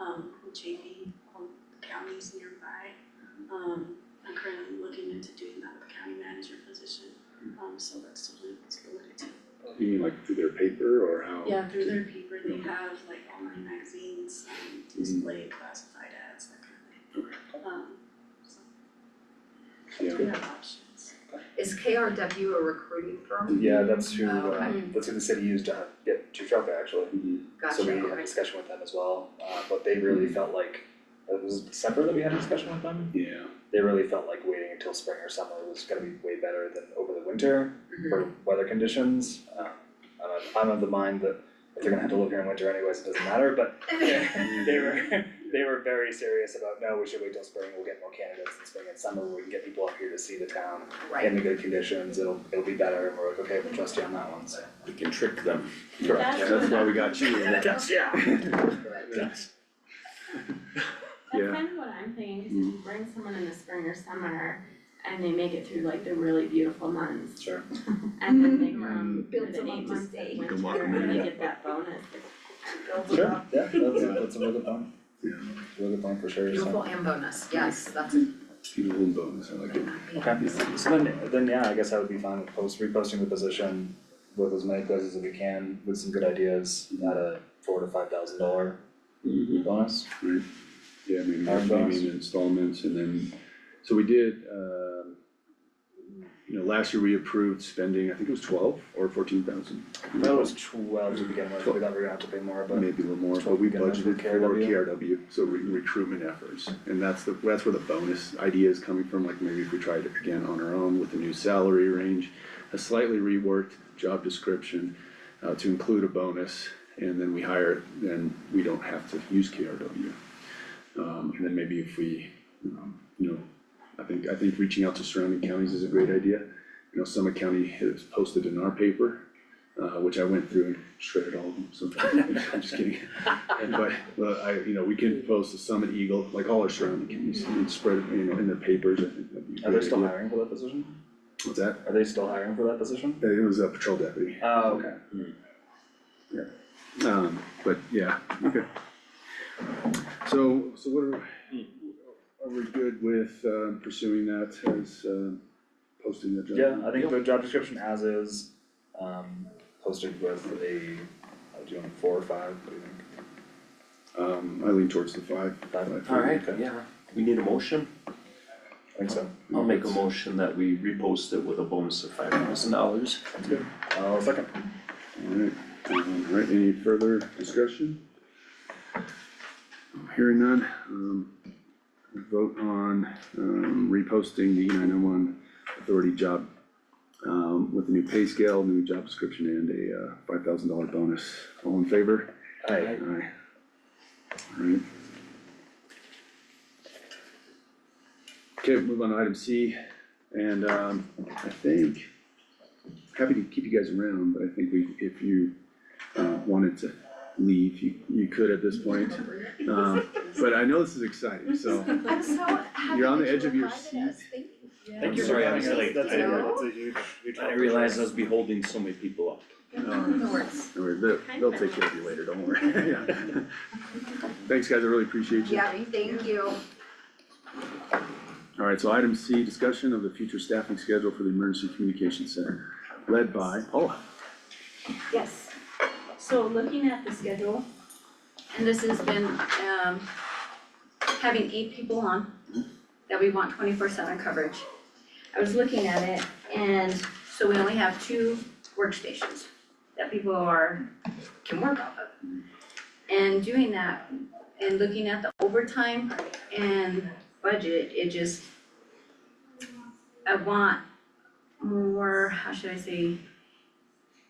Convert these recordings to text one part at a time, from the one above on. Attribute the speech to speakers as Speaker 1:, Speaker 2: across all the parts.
Speaker 1: um, JV on um, counties nearby. Um, I'm currently looking into doing that with the county manager position, um, so that's something that's related to.
Speaker 2: You mean like through their paper or how?
Speaker 1: Yeah, through their paper, they have like online magazines, um, display classified ads, that kind of thing. Um, so
Speaker 2: Yeah.
Speaker 1: we have options.
Speaker 3: Is KRW a recruiting firm?
Speaker 4: Yeah, that's who,
Speaker 3: Oh,
Speaker 4: uh,
Speaker 3: okay.
Speaker 4: that's who the city used to get to Trump actually.
Speaker 2: Mhm.
Speaker 3: Gotcha,
Speaker 4: So we had a
Speaker 3: okay. Mm-hmm.
Speaker 4: discussion with them as well, uh, but they really felt like, it was December that we had a discussion with them.
Speaker 2: Yeah,
Speaker 4: They really felt like waiting until spring or summer was gonna be way better than over the winter
Speaker 3: Mm-hmm.
Speaker 4: for weather conditions. Uh, I'm, I'm of the mind that if they're gonna have to live here in winter anyways, it doesn't matter, but they were, they were very serious about, no, we should wait till spring, we'll get more candidates in spring and summer, we can get people up here to see the town
Speaker 3: Right,
Speaker 4: in the good conditions, it'll, it'll be better, and we're like, okay, we'll trust you on that one, so.
Speaker 5: We can trick them.
Speaker 2: correct,
Speaker 1: That's-
Speaker 2: that's why we got you.
Speaker 4: yeah.
Speaker 2: That's-
Speaker 6: That's
Speaker 2: Yeah.
Speaker 6: kind of what Mm-hmm. I'm thinking, is if you bring someone in the spring or summer and they make it through like the really beautiful months
Speaker 4: Sure.
Speaker 6: and then they come for
Speaker 3: Mm-hmm. Build
Speaker 6: the
Speaker 3: them up
Speaker 6: eight
Speaker 3: to
Speaker 6: months of
Speaker 3: stay.
Speaker 6: winter
Speaker 5: Good luck,
Speaker 6: and they
Speaker 4: man.
Speaker 6: get that bonus.
Speaker 4: Sure, yeah, that's, that's a really good point.
Speaker 2: Yeah.
Speaker 4: Really good point for sure,
Speaker 3: beautiful
Speaker 4: so.
Speaker 3: and bonus, yes, that's a
Speaker 2: Beautiful bonus, I like it.
Speaker 4: Okay, so then, then yeah, I guess I would be fine with post, reposting the position with as many places as we can, with some good ideas, at a four to five thousand dollar
Speaker 2: Mhm.
Speaker 4: bonus.
Speaker 2: Right, yeah, I mean,
Speaker 4: Mm-hmm. Our bonus.
Speaker 2: maybe in installments and then, so we did, um, you know, last year we approved spending, I think it was twelve or fourteen thousand.
Speaker 4: That was twelve to begin with, we thought we were gonna have to pay more, but
Speaker 2: Maybe a little more, but we
Speaker 4: Twelve thousand
Speaker 2: budgeted
Speaker 4: for
Speaker 2: for
Speaker 4: KRW?
Speaker 2: KRW, so re- recruitment efforts. And that's the, that's where the bonus idea is coming from, like maybe if we tried it again on our own with a new salary range, a slightly reworked job description, uh, to include a bonus, and then we hire, then we don't have to use KRW. Um, and then maybe if we, um, you know, I think, I think reaching out to surrounding counties is a great idea. You know, Summit County has posted in our paper, uh, which I went through and shredded all of them, so I'm just kidding. And But, well, I, you know, we can post the Summit Eagle, like all our surrounding counties, and spread, it, you know, in the papers, I think that'd be a
Speaker 4: are they
Speaker 2: great
Speaker 4: still
Speaker 2: idea.
Speaker 4: hiring for that position?
Speaker 2: What's that?
Speaker 4: Are they still hiring for that position?
Speaker 2: It was a patrol deputy.
Speaker 4: Oh, okay.
Speaker 2: Um, but yeah, okay. So, so what are, are we good with um, pursuing that as, um, posting the job?
Speaker 4: Yeah, I think the job description as is, um, posted with a, uh, do you want four or five, what do you think?
Speaker 2: Um, I lean towards the five.
Speaker 4: Five?
Speaker 5: Alright,
Speaker 4: Okay,
Speaker 5: yeah, we need a motion,
Speaker 4: I think so.
Speaker 5: I'll make a motion that we repost it with a bonus of five thousand dollars.
Speaker 4: Uh, second,
Speaker 2: Alright, alright, um, any further discussion? Hearing none, um, vote on, um, reposting the E nine oh one authority job. Um, with a new pay scale, new job description and a, uh, five thousand dollar bonus, all in favor?
Speaker 4: aye,
Speaker 2: Aye. Alright. Okay, move on to item C, and, um, I think, happy to keep you guys around, but I think we, if you, uh, wanted to leave, you, you could at this point. Um, but I know this is exciting, so,
Speaker 3: I'm so happy
Speaker 2: You're on
Speaker 3: that
Speaker 2: the edge
Speaker 3: you
Speaker 2: of your
Speaker 3: reminded us.
Speaker 2: seat.
Speaker 3: Thank you.
Speaker 4: thank you for
Speaker 5: Sorry, I
Speaker 4: having
Speaker 5: was
Speaker 4: us,
Speaker 5: late.
Speaker 4: that's a,
Speaker 3: No.
Speaker 4: that's a huge, huge.
Speaker 5: I realized I was be holding so many people up.
Speaker 2: um,
Speaker 3: No worries.
Speaker 2: don't worry, they'll, they'll take care of you later, don't worry, yeah. Thanks, guys, I really appreciate you.
Speaker 3: Yeah, thank you.
Speaker 2: All right, so item C, discussion of the future staffing schedule for the Emergency Communication Center, led by oh, Paula.
Speaker 6: Yes, so looking at the schedule, and this has been, um, having eight people on
Speaker 2: Mm-hmm.
Speaker 6: that we want twenty-four seven coverage. I was looking at it, and so we only have two workstations that people are, can work off of. And doing that, and looking at the overtime and budget, it just, I want more, how should I say,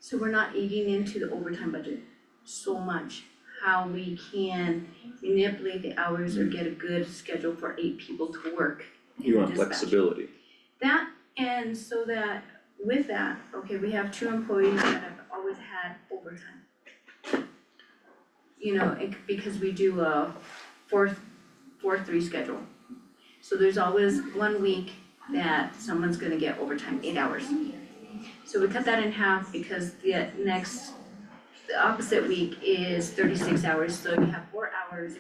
Speaker 6: so we're not eating into the overtime budget so much, how we can manipulate the hours or get a good schedule for eight people to work in
Speaker 5: You want
Speaker 6: dispatch.
Speaker 5: flexibility,
Speaker 6: That, and so that, with that, okay, we have two employees that have always had overtime. You know, it, because we do a four, four, three schedule. So there's always one week that someone's gonna get overtime, eight hours. So we cut that in half because the next, the opposite week is thirty-six hours, so you have four hours